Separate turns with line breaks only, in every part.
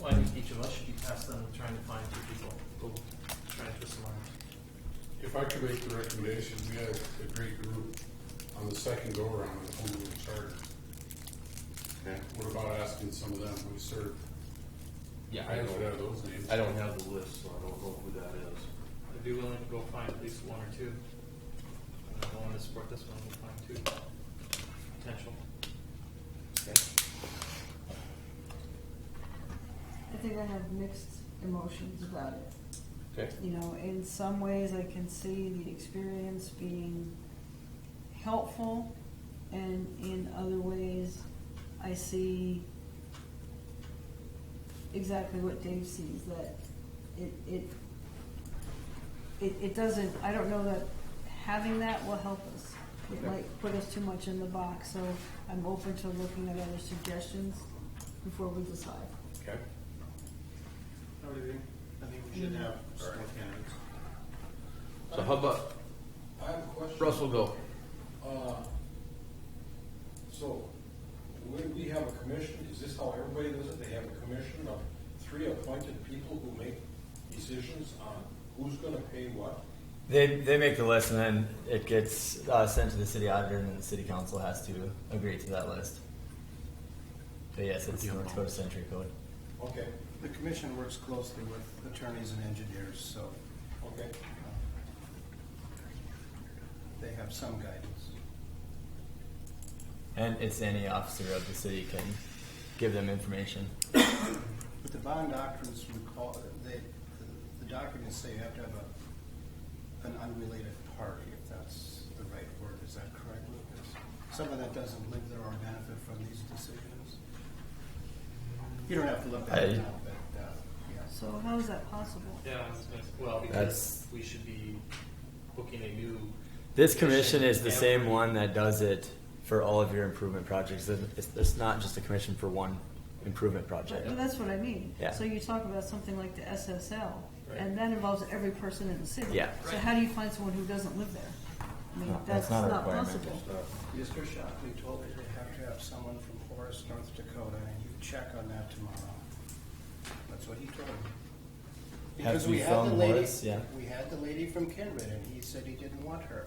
Well, I think each of us should be tasked then with trying to find two people who will try to twist the arm.
If I could make the recommendation, we had a great group on the second go-around of home rule charter. What about asking some of them who served?
Yeah,
I don't have those names.
I don't have the list, so I don't know who that is.
I'd be willing to go find at least one or two. And I want to support this one, we'll find two potential.
I think I have mixed emotions about it.
Okay.
You know, in some ways, I can see the experience being helpful, and in other ways, I see exactly what Dave sees that it it it, it doesn't. I don't know that having that will help us. It
Okay.
might put us too much in the box, so I'm open to looking at other suggestions before we decide.
Okay.
How do you think? I think we should have some more candidates.
So how about
I have a question.
Russell go?
Uh, So, when we have a commission, is this how everybody does it? They have a commission of three appointed people who make decisions on who's gonna pay what?
They, they make the list and then it gets uh, sent to the city auditor and then the city council has to agree to that list. But yes, it's North Dakota Century Code.
Okay,
The commission works closely with attorneys and engineers, so
okay.
they have some guidance.
And it's any officer of the city can give them information.
But the bond doctrines recall, they, the documents say you have to have a, an unrelated party, if that's the right word, is that correct, Lucas? Someone that doesn't live there or benefit from these decisions? You don't have to look that
I-
up, but, uh, yes.
So how is that possible?
Yeah, I was gonna say- well, because
That's-
we should be booking a new.
This commission is the
every-
same one that does it for all of your improvement projects. It's, it's not just a commission for one improvement project.
Well, that's what I mean.
Yeah.
So you talk about something like the SSL,
Right.
and that involves every person in the city.
Yeah.
So how do you find someone who doesn't live there? I mean,
No,
that's
that's not a
not
requirement.
possible.
Mr. Shockley told me they have to have someone from Horace, North Dakota, and you check on that tomorrow. That's what he told me.
Have
Because
we
had the
found
lady-
Horace? Yeah.
We had the lady from Kindred, and he said he didn't want her.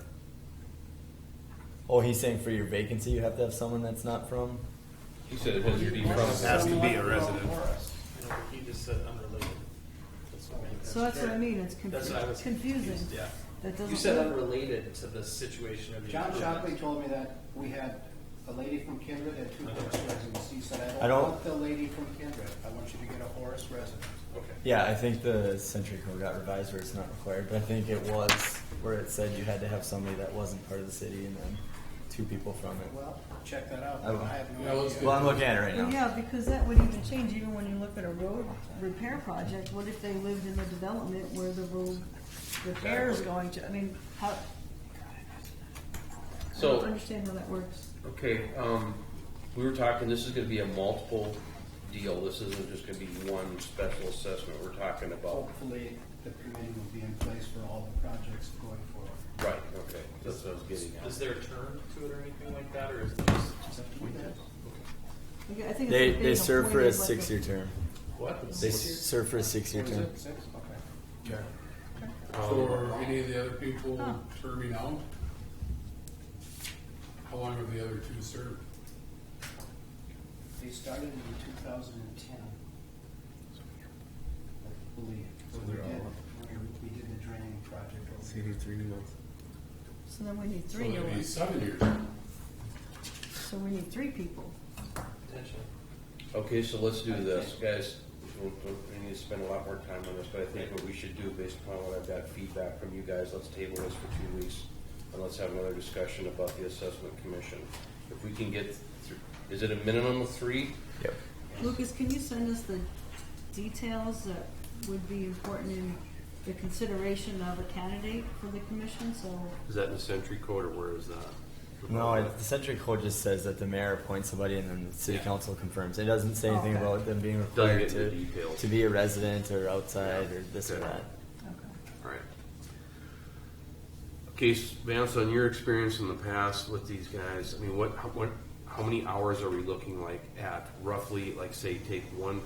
Oh, he's saying for your vacancy, you have to have someone that's not from?
He said it has to be from,
Has to be a resident. Horace.
You know, he just said unrelated. That's what I mean.
So that's what I mean, it's
That's what I was
confu- confusing.
confused, Yeah.
That doesn't.
You said unrelated to the situation of. the
John
improvement.
Shockley told me that we had a lady from Kindred and two Horace
Uh-huh.
residents. He said, I
I
don't
don't-
want the lady from Kindred. I want you to get a Horace resident.
Okay.
Yeah, I think the Century Code got revised where it's not required, but I think it was where it said you had to have somebody that wasn't part of the city and then two people from it.
Well, check that out.
I will.
I have
Yeah,
no
let's
idea.
Well, I'm looking at it right
Well,
now.
yeah, because that would even change, even when you look at a road repair project, what if they lived in the development where the road repair is going to, I mean, how, I
so.
don't understand how that works.
Okay, um, we were talking, this is gonna be a multiple deal, this isn't just gonna be one special assessment we're talking about.
Hopefully, the committee will be in place for all the projects going forward.
Right, okay, that's what I was getting
Is
at.
there a term to it or anything like that, or is it just?
Like, I think it's
They,
like
they
being
serve for a
appointed like
six-year term.
What?
They serve for a six-year
What is
term.
it, six? Okay.
So are any of the other people
Huh.
terming out? How long have the other two served?
They started in two thousand and ten. I believe.
So
We
they're
did-
all-
We we did the draining project. over here.
three new ones.
So then we need
So
three new
it'd be
ones,
Seven years.
so we need three people.
Potentially.
Okay, so let's do this, guys, we we need to spend a lot more time on this, but I think what we should do, based upon what I've got feedback from you guys, let's table this for two weeks, and let's have another discussion about the assessment commission. If we can get, thr- is it a minimum of three?
Yep.
Lucas, can you send us the details that would be important in the consideration of a candidate for the commission, so,
Is that in the century code, or where is that?
No, it- the Century Code just says that the mayor appoints somebody and then the city council confirms. It doesn't say anything
Okay.
about them being
Doesn't
required
get into
to,
details.
to be a resident or outside or this or
Okay.
that.
okay.
All right. Okay, s- Vance, on your experience in the past with these guys, I mean, what, how- what, how many hours are we looking like at roughly, like say, take one